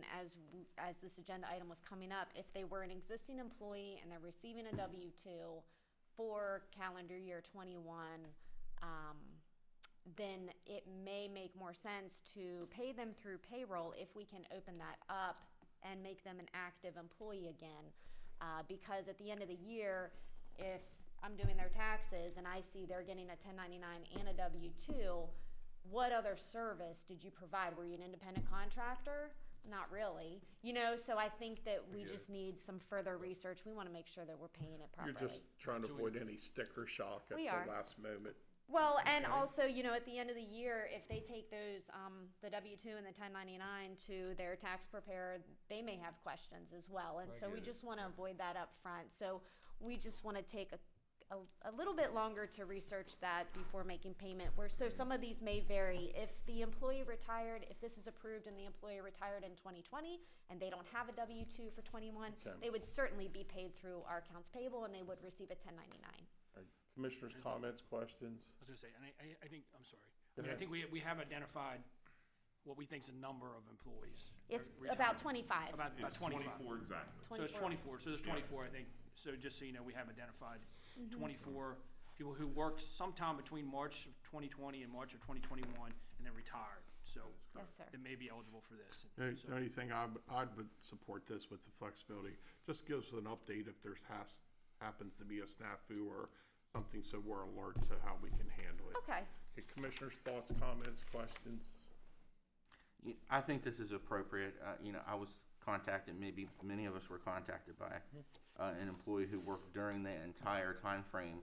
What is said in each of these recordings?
was, as this agenda item was coming up, if they were an existing employee and they're receiving a W-2 for calendar year twenty-one, um, then it may make more sense to pay them through payroll if we can open that up and make them an active employee again. Uh, because at the end of the year, if I'm doing their taxes and I see they're getting a ten ninety-nine and a W two, what other service did you provide? Were you an independent contractor? Not really, you know, so I think that we get just it. need some further research. We wanna make sure that we're paying it You're properly. just trying to avoid any sticker shock at the We are. last moment. Well, and also, you know, at the end of the year, if they take those, um, the W two and the ten ninety nine to their tax preparer, they may have questions as well. And I so we get it. just want to avoid that up front. So we just want to take a, a, a little bit longer to research that before making payment. Where so some of these may vary. If the employee retired, if this is approved and the employee retired in twenty twenty and they don't have a W two for twenty one, Okay. they would certainly be paid through our accounts payable and they would receive a ten ninety nine. Commissioners, comments, questions? I was gonna say, and I, I, I think, I'm sorry. I mean, Go I ahead. think we, we have identified what we think is the number of employees. It's Retired. about twenty five. About, about It's twenty-five. twenty-four exactly. So it's 24. twenty-four, so there's Yes. twenty-four, I think. So just so you know, we have identified Mm-hmm. twenty-four people who worked sometime between March of twenty twenty and March of twenty twenty-one and then retired, so. Yes, sir. They may be eligible for this. The So- the only thing I, would- I would support this with the flexibility, just gives an update if there's has, happens to be a snafu or something, so we're alert to how we can handle it. Okay. Commissioners, thoughts, comments, questions? You- I think this is appropriate. Uh, you know, I was contacted, maybe many of us were contacted by uh, an employee who worked during the entire time frame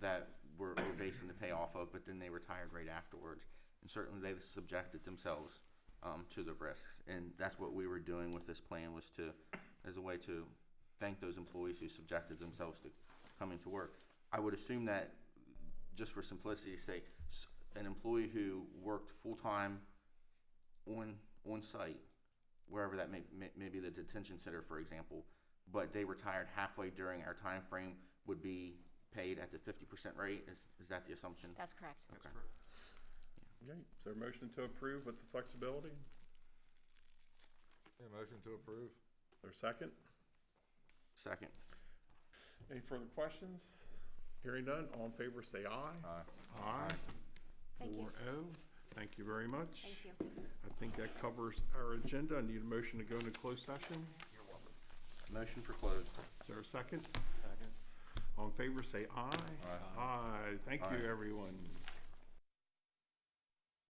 that we're, we're basing the pay off of, but then they retired right afterwards. And certainly they subjected themselves um, to the risks. And that's what we were doing with this plan was to, as a way to thank those employees who subjected themselves to coming to work. I would assume that, just for simplicity's sake, s- an employee who worked full-time on on site, wherever that may, may maybe the detention center, for example, but they retired halfway during our time frame would be paid at the fifty percent rate. Is is that the assumption? That's correct. Okay. Okay, is there a motion to approve with the flexibility? Is Yeah, motion to approve. there a second? Second. Any further questions? Hearing none, all in favor, say aye. Aye. Aye. Thank you. Four oh. Thank you very much. Thank you. I think that covers our agenda. I need a motion to go into closed session. Motion for closed. Is there a second? Second. All in favor, say aye. Aye. Thank you, everyone.